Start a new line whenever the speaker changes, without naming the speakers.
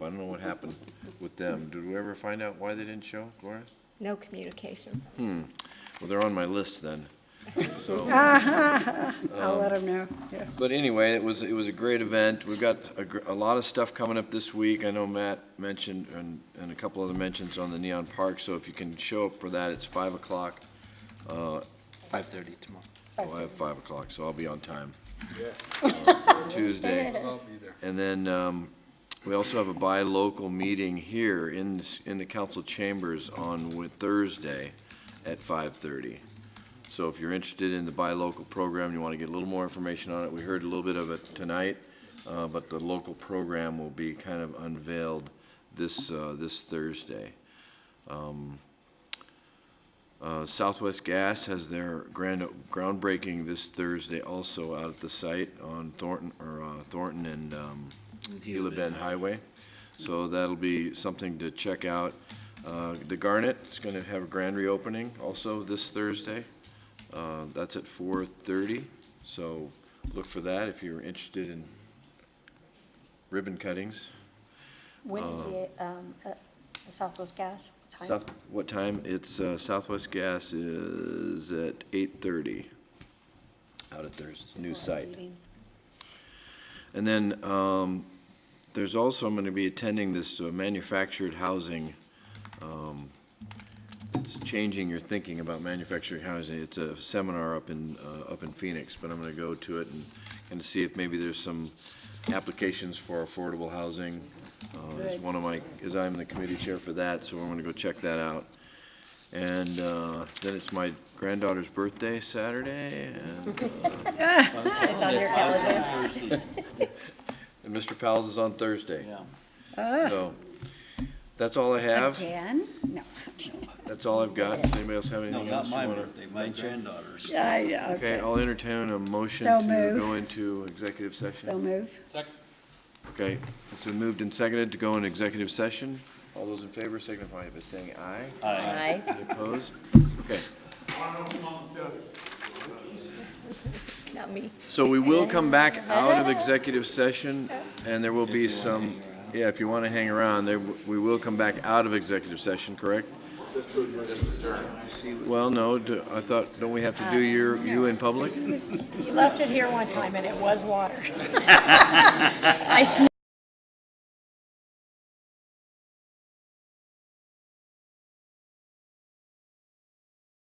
I don't know what happened with them. Did we ever find out why they didn't show, Gloria?
No communication.
Well, they're on my list then.
I'll let them know, yeah.
But anyway, it was, it was a great event. We've got a, gr- a lot of stuff coming up this week. I know Matt mentioned, and, and a couple other mentions on the Neon Park, so if you can show up for that, it's five o'clock.
Five thirty tomorrow.
Oh, I have five o'clock, so I'll be on time. Yes. Tuesday. I'll be there. And then, um, we also have a buy local meeting here in, this- in the council chambers on Wed- Thursday at five-thirty. So if you're interested in the buy local program, you want to get a little more information on it, we heard a little bit of it tonight, uh, but the local program will be kind of unveiled this, uh, this Thursday. Uh, Southwest Gas has their grand, groundbreaking this Thursday also out at the site on Thornton, or uh, Thornton and um, Gila Bend Highway. So that'll be something to check out. Uh, The Garnet is going to have a grand reopening also this Thursday. Uh, That's at 4:30, so look for that if you're interested in ribbon cuttings.
When is the, um, uh, Southwest Gas? Time?
South, what time? It's uh, Southwest Gas is at eight-thirty out at their s- new
Not
site.
meeting.
And then, um, there's also, I'm gonna be attending this uh, manufactured housing, um, it's changing your thinking about manufactured housing. It's a seminar up in, uh, up in Phoenix, but I'm gonna go to it and, and see if maybe there's some applications for affordable housing. Uh, as one of my, as I'm the committee chair for that, so I'm gonna go check that out. And, uh, then it's my granddaughter's birthday Saturday, and uh,
It's on your calendar.
And Mr. Powell's is on Thursday. So, that's all I have.
Again? No.
That's all I've got. Does anybody else have
No,
anything
not
else you
my
wanna?
birthday, my granddaughter's.
I, know,
Okay,
okay,
I'll entertain a motion
So
to
moved.
go into executive
so
session.
move.
Okay, it's been moved and seconded to go in executive session. All those in favor signify by saying aye.
Aye.
Any Opposed? Okay,
Not me.
so we will come back out of executive session and there will be some, yeah, if you wanna hang around, there, w- we will come back out of executive session, correct? Well, no, do- I thought, don't we have
Uh,
to do your, you in public?
You left it here one time and it was water. I sneezed